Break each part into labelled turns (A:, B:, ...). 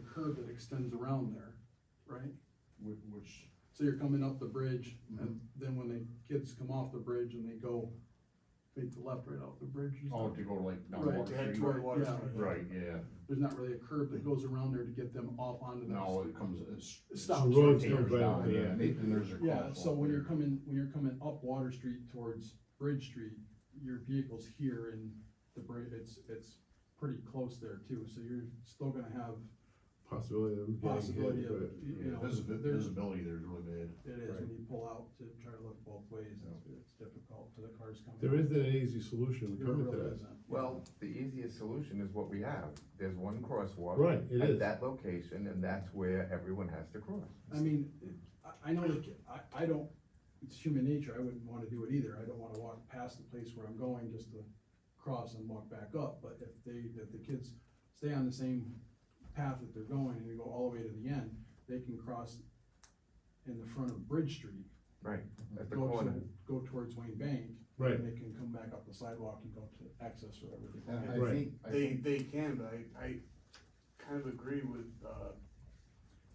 A: curb that extends around there, right?
B: Which, which,
A: So you're coming up the bridge,
B: Mm-hmm.
A: and then when the kids come off the bridge and they go, they to left right off the bridge. and
B: oh,
A: stuff,
B: to go like down
A: Right,
B: Water
C: To head
B: Street.
C: toward Water
A: Yeah.
C: Street.
B: Right, yeah,
A: There's not really a curb that goes around there to get them off onto
B: now
A: the.
B: it comes, it's.
A: It
B: it's
A: stops.
D: The road
B: tapers
D: comes right
B: down,
D: up to
B: yeah,
D: that.
B: and they- and there's a
A: Yeah,
B: crosswalk
A: so when you're
B: there.
A: coming, when you're coming up Water Street towards Bridge Street, your vehicle's here and the bridge, it's, it's pretty close there too, so you're still gonna have
D: possibility of them getting hit,
A: possibility of,
D: but-
A: you
B: Yeah,
A: know,
B: visibi-
A: there's,
B: visibility there's really bad.
A: it is, when you pull out to try to look both ways, it's, it's difficult for the cars coming.
D: There isn't an easy solution to
A: There
D: come to
A: really
D: that.
A: isn't.
E: Well, the easiest solution is what we have, there's one crosswalk.
D: Right, it is.
E: At that location, and that's where everyone has to cross.
A: I mean, I, I know, that I, I don't, it's human nature, I wouldn't wanna do it either, I don't wanna walk past the place where I'm going just to cross and walk back up, but if they, if the kids stay on the same path that they're going and they go all the way to the end, they can cross in the front of Bridge Street.
E: Right, at the
A: go to-
E: corner.
A: Go towards Wayne Bank.
D: Right.
A: And they can come back up the sidewalk and go to access or whatever. they
B: And
A: want.
B: I
D: Right.
B: think- I
C: They, they can, but I, I kind of agree with, uh,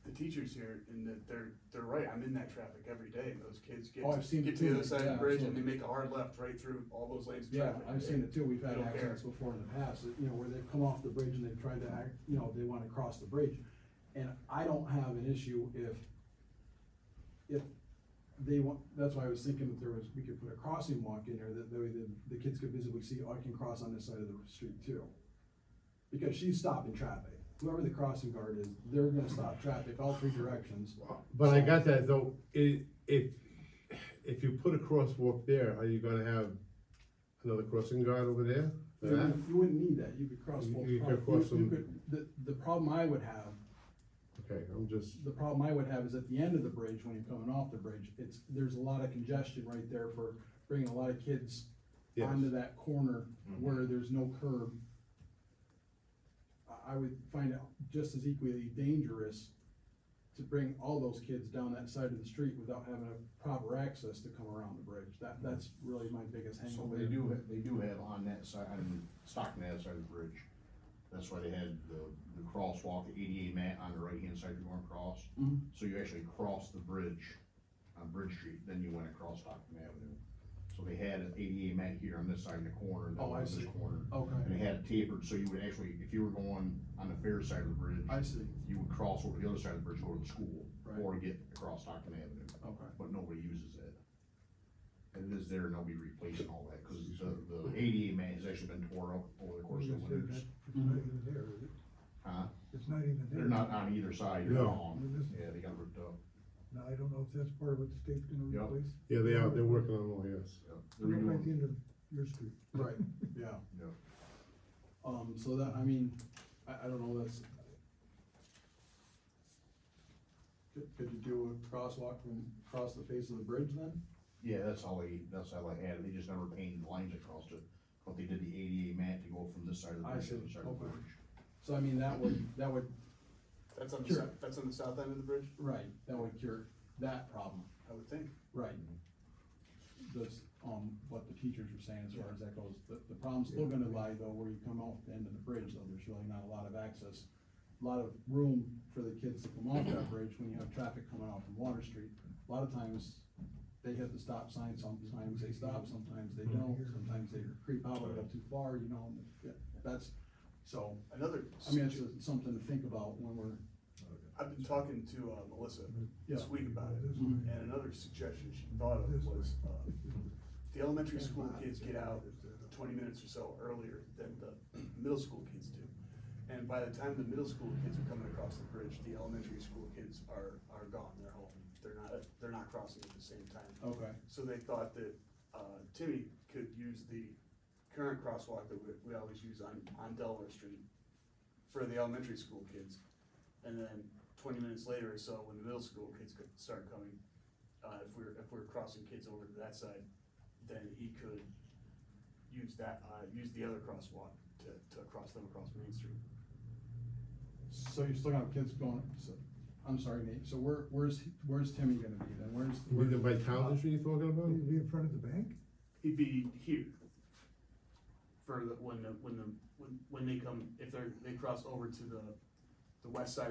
C: the teachers here in that they're, they're right, I'm in that traffic every day, and those kids get,
A: Oh, I've seen it
C: get to the
A: too,
C: other side of
A: yeah,
C: the bridge and they
A: absolutely.
C: make a hard left right through all those lanes of
A: Yeah,
C: traffic.
A: I've seen it too, we've had
C: They don't care.
A: accidents before in the past, that, you know, where they've come off the bridge and they've tried to act, you know, they wanna cross the bridge. And I don't have an issue if, if they want, that's why I was thinking that there was, we could put a crossing walk in there, that, that way the, the kids could visibly see, oh, I can cross on this side of the street too. Because she's stopping traffic, whoever the crossing guard is, they're gonna stop traffic all three directions.
D: But I got that though, i- if, if you put a crosswalk there, are you gonna have another crossing guard over there? for
A: You
D: that?
A: wouldn't- you wouldn't need that, you could cross
D: You-
A: both.
D: you could
A: pro-
D: cross
A: you
D: them.
A: could- The, the problem I would have
D: Okay, I'm just,
A: the problem I would have is at the end of the bridge, when you're coming off the bridge, it's, there's a lot of congestion right there for bringing a lot of kids
D: Yes.
A: onto that corner
B: Mm-hmm.
A: where there's no curb. I, I would find it just as equally dangerous to bring all those kids down that side of the street without having a proper access to come around the bridge. That, that's really my biggest
B: So
A: hangup.
B: they
A: there.
B: do, ha- they do have on that side, on Stockton, that side of the bridge, that's why they had the, the crosswalk, the ADA mat on the right-hand side you're going across.
A: Mhm.
B: So you actually cross the bridge on Bridge Street, then you went across Stockton Avenue. So they had an ADA mat here on this side in the corner, then
A: Oh, I
B: on this
A: see.
B: corner. And
A: Okay,
B: they had it tapered, so you would actually, if you were going on the fair side of the bridge,
A: I see,
B: you would cross over the other side of the bridge, over to the school,
A: Right.
B: or get across Stockton Avenue
A: okay.
B: but nobody uses it. And it is there and they'll be replacing all that, cause the, the ADA man has actually been tore up over the course of the winters.
F: It's
C: Mm-hmm.
F: not even there, is it?
B: Huh?
F: It's not even there.
B: They're not on either side, they're
D: No.
B: gone. Yeah, they got ripped up.
F: Now, I don't know if that's part of what the state's gonna
B: Yeah.
F: replace.
D: yeah, they are, they're working on all, yes.
B: Yeah, They're
F: Right at the
B: redoing,
F: end of your street.
A: Right, yeah.
B: Yeah.
A: Um, so that, I mean, I, I don't know, that's. Could, could you do a crosswalk from, across the face of the bridge then?
B: yeah, that's all they, that's all they had, they just never painted lines across it, but they did the ADA mat to go from this side of the
A: I
B: bridge to
A: see,
B: the other side of the
A: okay.
B: bridge.
A: So I mean, that would, that would,
C: That's on the,
A: Sure.
C: sou- that's on the south end of the bridge,
A: right, that would cure that problem,
C: I would think.
A: right? That's, um, what the teachers were saying as far as that goes, the, the problem's still gonna lie though, where you come off the end of the bridge, though, there's really not a lot of access. a lot of room for the kids to come off that bridge when you have traffic coming off from Water Street. A lot of times, they hit the stop sign, sometimes they stop, sometimes they don't, sometimes they creep out a little too far, you know, and yeah, that's, so,
C: Another,
A: I mean, it's a- something to think about when we're,
C: I've been talking to, uh, Melissa this
A: Yeah.
C: week about it,
A: Mhm.
C: and another suggestion she thought of was, uh, the elementary school kids get out twenty minutes or so earlier than the middle school kids do. And by the time the middle school kids are coming across the bridge, the elementary school kids are, are gone, they're home. They're not, they're not crossing at the same time.
A: okay,
C: So they thought that, uh, Timmy could use the current crosswalk that we, we always use on, on Delaware Street for the elementary school kids. And then twenty minutes later or so, when the middle school kids could start coming, uh, if we're, if we're crossing kids over to that side, then he could use that, uh, use the other crosswalk to, to cross them across Main Street.
A: so you're still gonna have kids going, so, I'm sorry, Nate, so where, where's, where's Timmy gonna be then, where's?
D: Either by Townsend Street you're talking about?
F: It'd be in front of the bank?
C: He'd be here for the, when the, when the, when, when they come, if they're, they cross over to the, the west side of